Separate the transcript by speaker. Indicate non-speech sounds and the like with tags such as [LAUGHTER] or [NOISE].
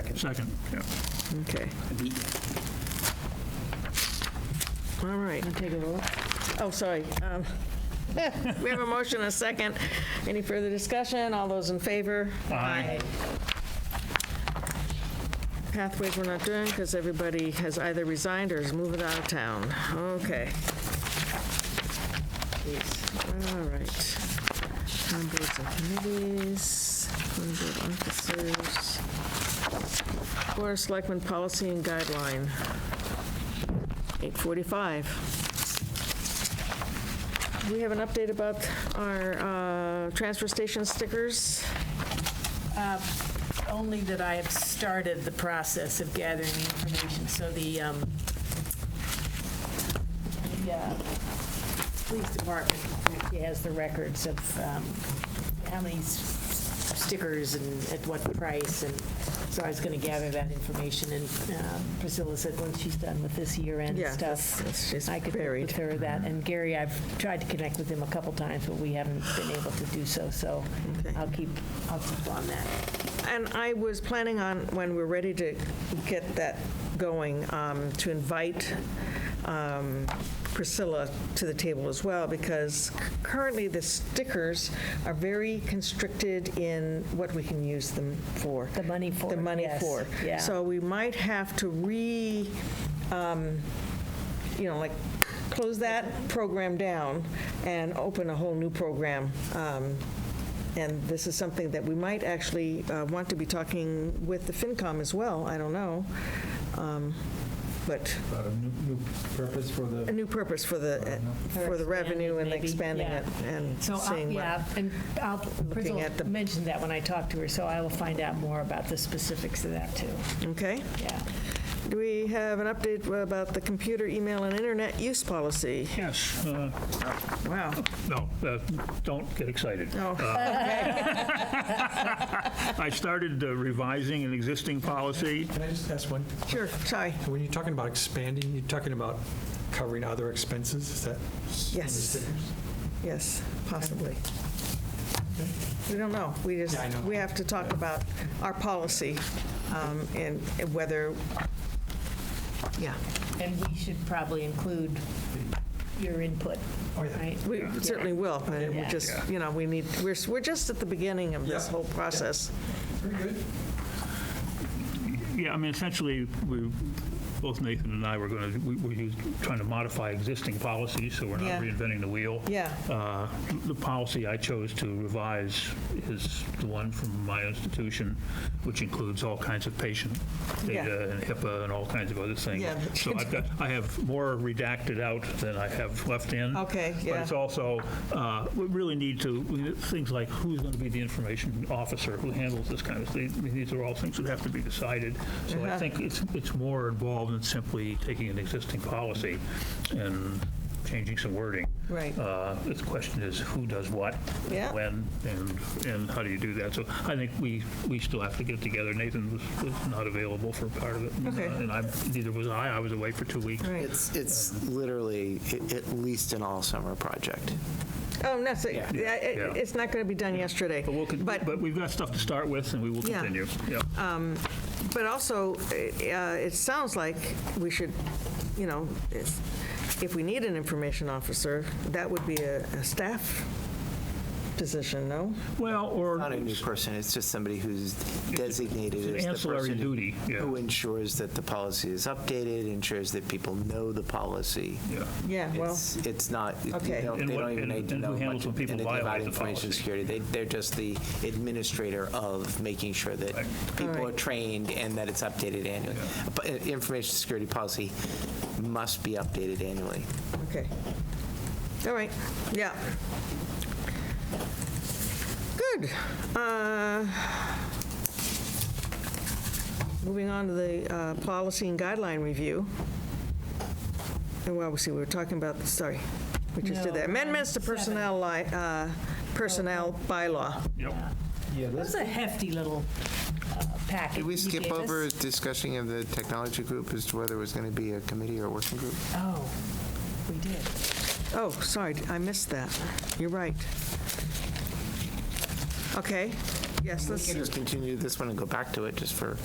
Speaker 1: Second, yeah.
Speaker 2: Okay. All right.
Speaker 3: Take a vote.
Speaker 2: Oh, sorry. Um, [LAUGHS] We have a motion and a second. Any further discussion? All those in favor?
Speaker 1: Aye.
Speaker 2: Pathways we're not doing because everybody has either resigned or is moving out of town. Okay. Jeez. All right. Town boards and committees, town board officers, Board of Selectmen Policy and Guideline, 845. Do we have an update about our uh, transfer station stickers?
Speaker 3: Uh, Only that I have started the process of gathering the information, so the, um, the, uh, police department has the records of, um, how many s- stickers and at what price, and so I was gonna gather that information, and, um, Priscilla said once she's done with this year-end
Speaker 2: Yeah,
Speaker 3: stuff,
Speaker 2: that's- that's- it's
Speaker 3: I could work
Speaker 2: buried.
Speaker 3: with her that, and Gary, I've tried to connect with him a couple times, but we haven't been able to do so, so
Speaker 2: Okay.
Speaker 3: I'll keep, I'll keep on that.
Speaker 2: And I was planning on, when we're ready to get that going, um, to invite um, Priscilla to the table as well, because currently the stickers are very constricted in what we can use them for.
Speaker 3: The money for
Speaker 2: The
Speaker 3: it,
Speaker 2: money
Speaker 3: yes,
Speaker 2: for.
Speaker 3: yeah.
Speaker 2: So we might have to re, um, you know, like, close that program down and open a whole new program. Um, And this is something that we might actually uh, want to be talking with the FinCom as well, I don't know. Um, But
Speaker 4: About a new, new purpose for
Speaker 2: a
Speaker 4: the,
Speaker 2: new purpose for the, for the
Speaker 3: expanding
Speaker 2: revenue and
Speaker 3: maybe,
Speaker 2: expanding
Speaker 3: yeah.
Speaker 2: it and
Speaker 3: So, I'll-
Speaker 2: seeing what.
Speaker 3: yeah, and I'll, Priscilla
Speaker 2: at the-
Speaker 3: mentioned that when I talked to her, so I will find out more about the specifics of that, too.
Speaker 2: Okay.
Speaker 3: Yeah.
Speaker 2: Do we have an update about the computer, email, and internet use policy?
Speaker 1: Yes, uh,
Speaker 2: Wow.
Speaker 1: no, uh, don't get excited. Uh,
Speaker 2: Oh,
Speaker 1: [LAUGHS] I started uh, revising an existing policy.
Speaker 4: can I just ask one?
Speaker 2: sure, sorry.
Speaker 4: When you're talking about expanding, you're talking about covering other expenses, is that?
Speaker 2: Yes, yes, possibly. We don't know. We just,
Speaker 4: Yeah, I know.
Speaker 2: we have to talk about our policy um, and whether, yeah,
Speaker 3: And we should probably include your input,
Speaker 4: Oh, yeah.
Speaker 3: right?
Speaker 2: we certainly will. but We
Speaker 3: Yeah.
Speaker 2: just, you know, we need, we're, we're just at the beginning of this
Speaker 4: Yeah.
Speaker 2: whole process.
Speaker 4: Pretty good.
Speaker 1: Yeah, I mean, essentially, we, both Nathan and I were going to, we were us- trying to modify existing policies, so we're
Speaker 2: Yeah.
Speaker 1: not reinventing the wheel.
Speaker 2: Yeah.
Speaker 1: Uh, The policy I chose to revise is the one from my institution, which includes all kinds of patient
Speaker 2: Yeah.
Speaker 1: data and HIPAA and all kinds of other things.
Speaker 2: Yeah.
Speaker 1: So I've got, I have more redacted out than I have left in.
Speaker 2: Okay,
Speaker 1: But
Speaker 2: yeah.
Speaker 1: it's also, uh, we really need to, we- things like who's going to be the information officer, who handles this kind of thing, I mean, these are all things that have to be decided. So
Speaker 2: Uh-huh.
Speaker 1: I think it's, it's more involved than simply taking an existing policy and changing some wording.
Speaker 2: Right.
Speaker 1: Uh, The question is, who does what?
Speaker 2: Yeah.
Speaker 1: When, and, and how do you do that? So I think we, we still have to get together. Nathan was, was not available for part of it. Uh,
Speaker 2: Okay.
Speaker 1: And I, neither was I, I was away for two weeks.
Speaker 2: Right.
Speaker 5: It's, it's literally a- at least an all-summer project.
Speaker 2: Oh, no, so, yeah, it-
Speaker 1: Yeah.
Speaker 2: it's not going to be done yesterday.
Speaker 1: But we'll, con- but we've got stuff to start with, and we will
Speaker 2: Yeah. Uh,
Speaker 1: continue. Yeah.
Speaker 2: But also, eh, uh, it sounds like we should, you know, if if we need an information officer, that would be a a staff position, no?
Speaker 1: Well, or.
Speaker 5: Not a new person, it's just somebody who's designated
Speaker 1: It's an
Speaker 5: as the
Speaker 1: ancillary
Speaker 5: person
Speaker 1: duty, yeah.
Speaker 5: who ensures that the policy is updated, ensures that people know the policy.
Speaker 1: Yeah.
Speaker 2: Yeah, well,
Speaker 5: It's, it's not, it-
Speaker 2: Okay.
Speaker 5: they don't
Speaker 1: And
Speaker 5: they
Speaker 1: what-
Speaker 5: don't even
Speaker 1: and-
Speaker 5: need to
Speaker 1: and who
Speaker 5: know
Speaker 1: handles
Speaker 5: much
Speaker 1: when people
Speaker 5: anything about
Speaker 1: violate the
Speaker 5: information
Speaker 1: policy?
Speaker 5: security. They, they're just the administrator of making sure that
Speaker 1: Right.
Speaker 5: people are
Speaker 2: right.
Speaker 5: trained and that it's updated annually. But uh, information security policy must be updated annually.
Speaker 2: okay. All right, yeah. Good. Uh, Moving on to the uh, policy and guideline review. And well, we see, we were talking about, sorry, we just did
Speaker 3: No,
Speaker 2: that. Amendments to
Speaker 3: um, seven. Oh,
Speaker 2: personnel, li- uh, personnel bylaw.
Speaker 1: Yep.
Speaker 4: Yeah,
Speaker 3: That
Speaker 4: that's,
Speaker 3: was a hefty little uh, packet.
Speaker 5: Did we
Speaker 3: you
Speaker 5: skip
Speaker 3: gave us.
Speaker 5: over discussion of the technology group as to whether it was going to be a committee or a working group?
Speaker 3: Oh, we did.
Speaker 2: Oh, sorry, I missed that. You're right. Okay, yes,
Speaker 5: We
Speaker 2: let's,
Speaker 5: can just continue this one and go back to it just for